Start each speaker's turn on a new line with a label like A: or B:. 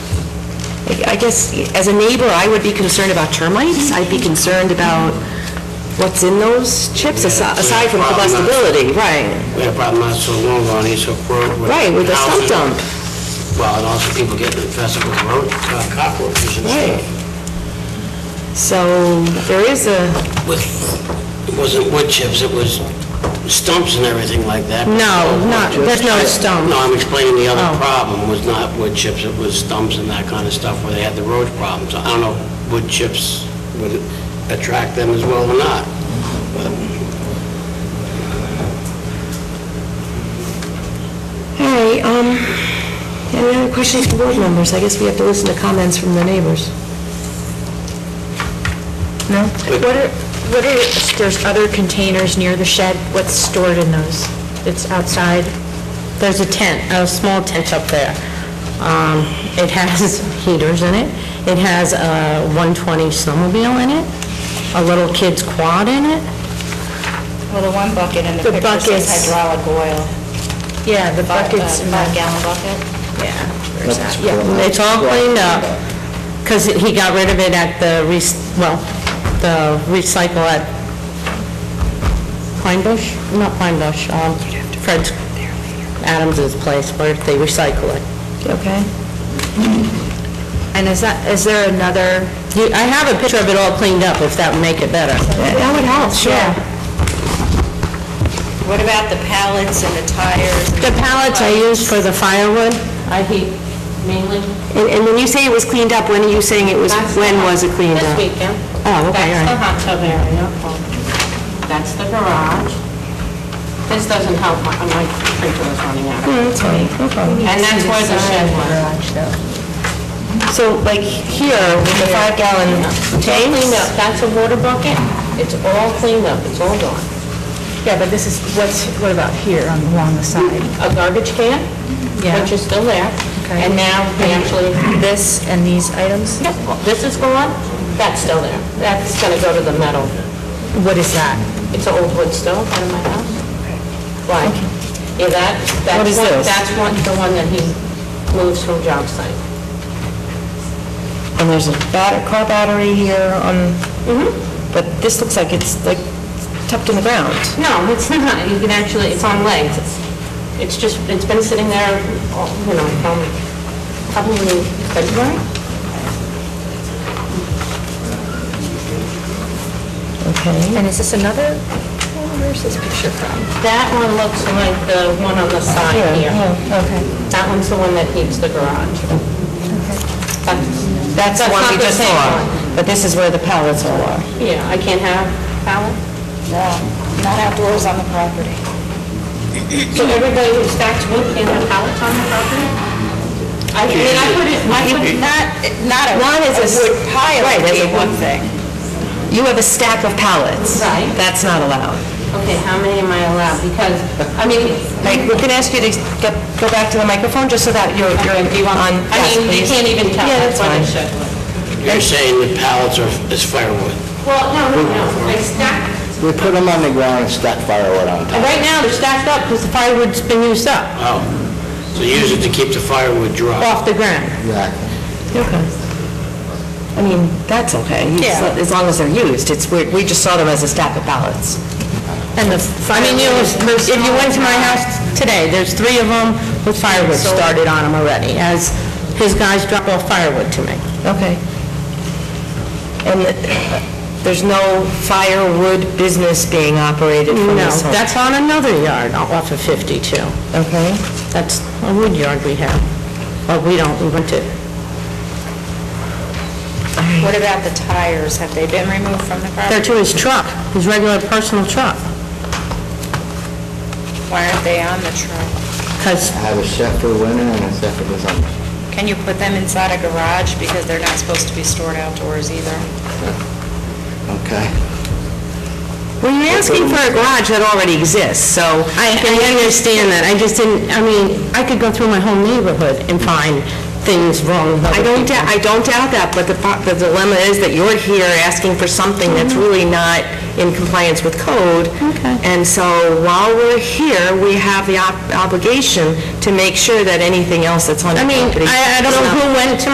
A: I guess, as a neighbor, I would be concerned about termites. I'd be concerned about what's in those chips, asi- aside from combustibility, right?
B: We had a problem not so long ago on East Hook Road with...
A: Right, with the stump
B: houses.
A: dump.
B: Well, and also people getting infested with road uh, cockroaches and
A: Right.
B: stuff.
A: So there is a,
B: With, it wasn't wood chips, it was stumps and everything like that.
A: No, not- there's no stump.
B: No, I'm explaining the
A: Oh.
B: other problem was not wood chips, it was stumps and that kind of stuff where they had the road problems. I don't know if wood chips would attract them as well or not.
A: all right, um, any other questions from board members? I guess we have to listen to comments from the neighbors. No?
C: What are, what are, there's other containers near the shed, what's stored in those? It's outside,
D: There's a tent, a small tent up there. Um, It has heaters in it. It has a 120 snowmobile in it, a little kid's quad in it.
E: Well, the one bucket in
D: The
E: the picture says
D: buckets.
E: hydraulic oil.
D: Yeah, the
E: Five-
D: buckets.
E: uh, Five gallon bucket.
D: Yeah, it's all cleaned up, because he got rid of it at the, rec- well, the recycle at Pine Bush? Not Pine Bush, um, Fred Adams's place where they recycle it.
C: okay? And is that, is there another,
D: You- I have a picture of it all cleaned up, if that would make it better.
A: That would help, sure.
E: What about the pallets and the tires? and
D: The pallets I use for the firewood, I heat mainly.
A: And and when you say it was cleaned up, when are you saying it was, when was it cleaned
D: This
A: up?
D: weekend.
A: Oh, okay, all
D: That's
A: right.
D: the hot tub area. That's the garage. This doesn't help, my my printer is running out.
A: Hmm,
D: And that's where the shed was.
A: So like here, with the five gallon
D: It's Cleaned up, that's a water bucket. It's all cleaned up, it's all gone.
C: yeah, but this is, what's, what about here on, along the side?
D: A garbage can,
C: Yeah.
D: which is still there.
C: Okay.
D: And now, we actually,
C: This and these items?
D: Yep, well, this is gone, that's still there. That's gonna go to the metal.
C: What is that?
D: It's an old wood stove out of my house. Why? Yeah, that,
C: What is
D: that's one,
C: this?
D: that's one, the one that he moves from job site.
A: And there's a bat- car battery here on,
D: Mm-hmm.
A: but this looks like it's like tucked in the ground.
D: No, it's not, you can actually, it's on legs. It's- It's just, it's been sitting there, all- you know, from probably February.
C: And is this another, where's this picture from?
D: That one looks like the one on the side here.
C: Okay.
D: That one's the one that heats the garage. That's-
A: That's the one
D: not
A: we
D: the
A: just
D: same
A: saw.
D: one.
A: But this is where the pallets all are.
D: Yeah, I can't have pallet.
E: No, Not outdoors on the property.
D: So everybody who stacks wood can have pallets on the property? I mean, I put it, I put it,
E: Not, not a
A: One is a s-
E: wood pile
A: right,
E: would
A: there's
E: be
A: a
E: one
A: wood-
E: thing.
A: You have a stack of pallets.
D: Right.
A: That's not allowed.
D: okay, how many am I allowed? Because, I mean,
A: Like, we're going to ask you to get, go back to the microphone just so that you're, you're
D: do you want,
A: on,
D: I
A: yes,
D: mean, you
A: please.
D: can't even tell,
A: Yeah, that's
D: that's what
A: fine.
D: I should.
B: You're saying the pallets are, is firewood.
D: Well, no, no, no, I stack,
F: We put them on the ground and stack firewood on top.
D: right now, they're stacked up because the firewood's been used up
B: Oh, so use it to keep the firewood dry.
D: off the ground.
F: Exactly.
A: Okay. I mean, that's okay, You just-
D: Yeah.
A: as long as they're used. It's, we we just saw them as a stack of pallets.
D: And the I mean, you, if you went to my house today, there's three of them with firewood started on them already, as his guys drop off firewood to me.
A: Okay. And th- there's no firewood business being operated from
D: No,
A: this home?
D: that's on another yard off of 52.
A: Okay.
D: That's a wood yard we have, but we don't, we rent it.
E: What about the tires? Have they been removed from the
D: There
E: property?
D: to his truck, his regular personal truck,
E: Why aren't they on the truck?
D: because
F: I have a set for winter and a set for the summer.
E: Can you put them inside a garage because they're not supposed to be stored outdoors either?
F: Okay.
A: Well, you're asking for a garage that already exists, so...
D: I, I understand that, I just didn't, I mean, I could go through my whole neighborhood and find things wrong with
A: I
D: other
A: don't,
D: people.
A: doubt- I don't doubt that, but the pro- the dilemma is that you're here asking for something that's really not in compliance with code.
D: Mm-hmm. Okay.
A: And so while we're here, we have the ob- obligation to make sure that anything else that's on the
D: I mean,
A: property...
D: I, I don't
A: is
D: know
A: not-
D: who went to